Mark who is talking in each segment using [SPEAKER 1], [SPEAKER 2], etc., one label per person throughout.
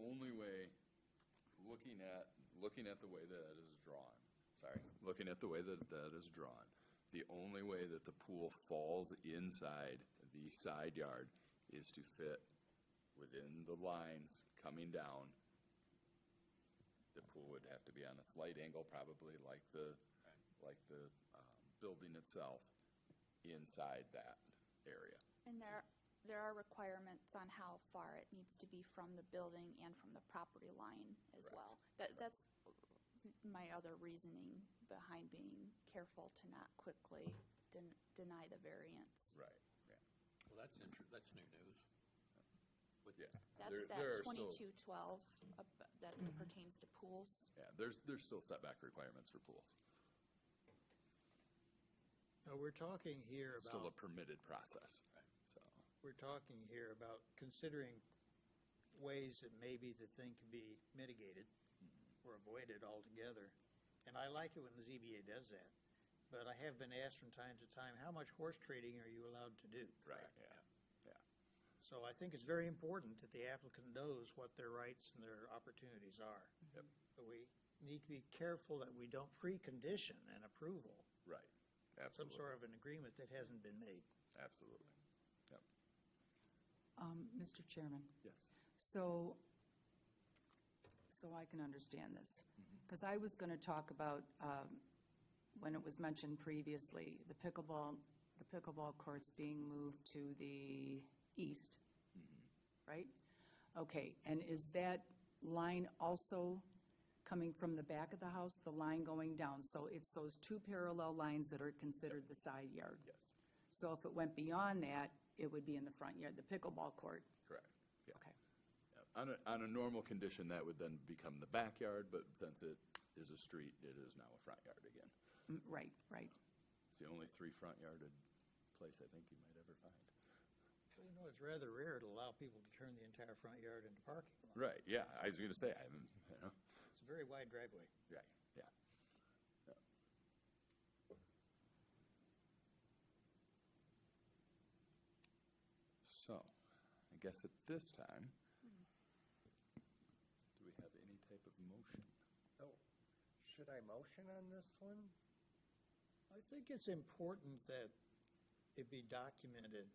[SPEAKER 1] only way, looking at, looking at the way that it is drawn, sorry, looking at the way that that is drawn, the only way that the pool falls inside the side yard is to fit within the lines coming down. The pool would have to be on a slight angle, probably like the, like the um, building itself, inside that area.
[SPEAKER 2] And there, there are requirements on how far it needs to be from the building and from the property line as
[SPEAKER 1] Correct.
[SPEAKER 2] well. That, that's my other reasoning behind being careful to not quickly den- deny the variance.
[SPEAKER 1] Right, yeah.
[SPEAKER 3] Well, that's inter, that's new news. With-
[SPEAKER 1] Yeah.
[SPEAKER 2] That's
[SPEAKER 1] There- there
[SPEAKER 2] that
[SPEAKER 1] are still-
[SPEAKER 2] twenty-two twelve that pertains to pools.
[SPEAKER 1] Yeah, there's, there's still setback requirements for pools.
[SPEAKER 4] Now, we're talking here
[SPEAKER 1] It's still a
[SPEAKER 4] about,
[SPEAKER 1] permitted process,
[SPEAKER 3] Right.
[SPEAKER 1] so.
[SPEAKER 4] we're talking here about considering ways that maybe the thing can be mitigated
[SPEAKER 1] Mm-hmm.
[SPEAKER 4] or avoided altogether. And I like it when the ZBA does that, but I have been asked from time to time, how much horse trading are you allowed to do?
[SPEAKER 1] Right,
[SPEAKER 3] Correct,
[SPEAKER 1] yeah.
[SPEAKER 4] So I think it's very important that the applicant knows what their rights and their opportunities are.
[SPEAKER 1] Yep.
[SPEAKER 4] But we need to be careful that we don't precondition an approval,
[SPEAKER 1] Right,
[SPEAKER 4] some
[SPEAKER 1] absolutely,
[SPEAKER 4] sort of an agreement that hasn't been made.
[SPEAKER 1] absolutely.
[SPEAKER 5] Um, Mr. Chairman,
[SPEAKER 1] Yes.
[SPEAKER 5] so, so I can understand this. Because I was going to talk about, um, when it was mentioned previously, the pickleball, the pickleball courts being moved to the east, right? Okay, and is that line also coming from the back of the house, the line going down? So it's those two parallel lines that are considered the side yard?
[SPEAKER 1] Yes,
[SPEAKER 5] So if it went beyond that, it would be in the front yard, the pickleball court?
[SPEAKER 1] correct, yeah.
[SPEAKER 5] Okay.
[SPEAKER 1] Yep. On a, on a normal condition, that would then become the backyard, but since it is a street, it is now a front yard again.
[SPEAKER 5] Mm, Right, right.
[SPEAKER 1] It's the only three front yarded place I think you might ever find.
[SPEAKER 4] Well, You know, it's rather rare to allow people to turn the entire front yard into parking lot.
[SPEAKER 1] Right, yeah, I was gonna say, I haven't, you know,
[SPEAKER 4] It's a very wide driveway.
[SPEAKER 1] right, yeah. So, I guess at this time, do we have any type of motion?
[SPEAKER 6] Oh, should I motion on this one?
[SPEAKER 4] I think it's important that it be documented,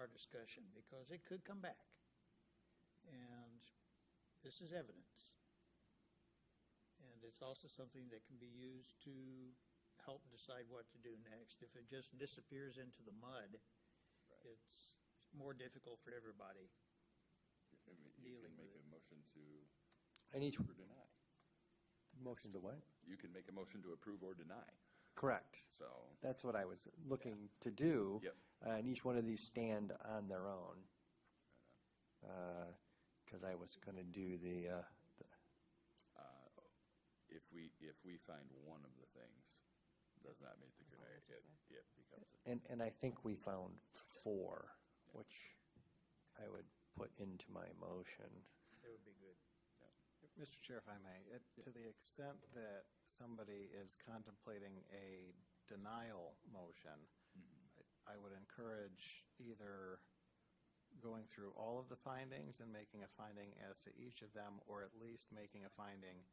[SPEAKER 4] our discussion, because it could come back. And this is evidence. And it's also something that can be used to help decide what to do next. If it just disappears into the mud, it's more difficult for everybody.
[SPEAKER 1] I mean, You can
[SPEAKER 4] Dealing
[SPEAKER 1] make a
[SPEAKER 4] with
[SPEAKER 1] motion to
[SPEAKER 6] I need
[SPEAKER 1] approve or deny.
[SPEAKER 6] Motion to what?
[SPEAKER 1] You can make a motion to approve or deny,
[SPEAKER 6] Correct.
[SPEAKER 1] so,
[SPEAKER 6] That's what I was looking to do.
[SPEAKER 1] Yep.
[SPEAKER 6] Uh, And each one of these stand on their own. Because I was going to do the, uh, the-
[SPEAKER 1] if we, if we find one of the things does not meet the criteria, it, it becomes a
[SPEAKER 6] and, and I think we found four, which I would put into my motion.
[SPEAKER 4] That would be good.
[SPEAKER 7] Mr. Chair, if I may, it- to the extent that somebody is contemplating a denial motion, I- I would encourage either going through all of the findings and making a finding as to each of them, or at least making a finding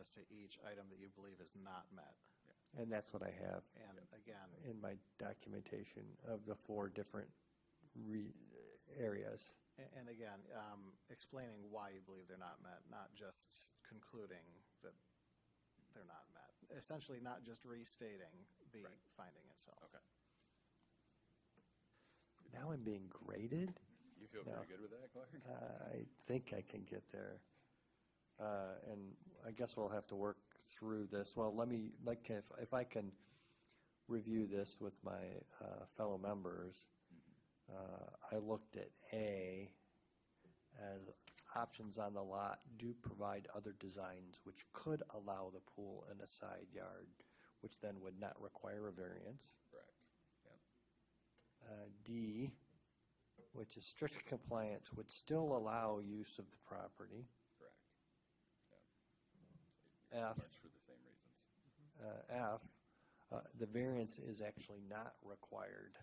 [SPEAKER 7] as to each item that you believe is not met.
[SPEAKER 6] And that's what I have
[SPEAKER 7] And again,
[SPEAKER 6] in my documentation of the four different re, areas.
[SPEAKER 7] a- and again, um, explaining why you believe they're not met, not just concluding that they're not met. Essentially, not just restating the finding itself.
[SPEAKER 1] Okay.
[SPEAKER 6] Now I'm being graded?
[SPEAKER 1] You feel
[SPEAKER 6] No. Uh,
[SPEAKER 1] pretty good with that, Clark?
[SPEAKER 6] I think I can get there. Uh, And I guess we'll have to work through this. Well, let me, like, if, if I can review this with my uh, fellow members, uh, I looked at A as options on the lot do provide other designs which could allow the pool in a side yard, which then would not require a variance
[SPEAKER 1] Correct, yeah.
[SPEAKER 6] uh, D, which is strict compliance, would still allow use of the property.
[SPEAKER 1] Correct.
[SPEAKER 6] F,
[SPEAKER 1] Much for the same reasons.
[SPEAKER 6] uh, F, uh, the variance is actually not required.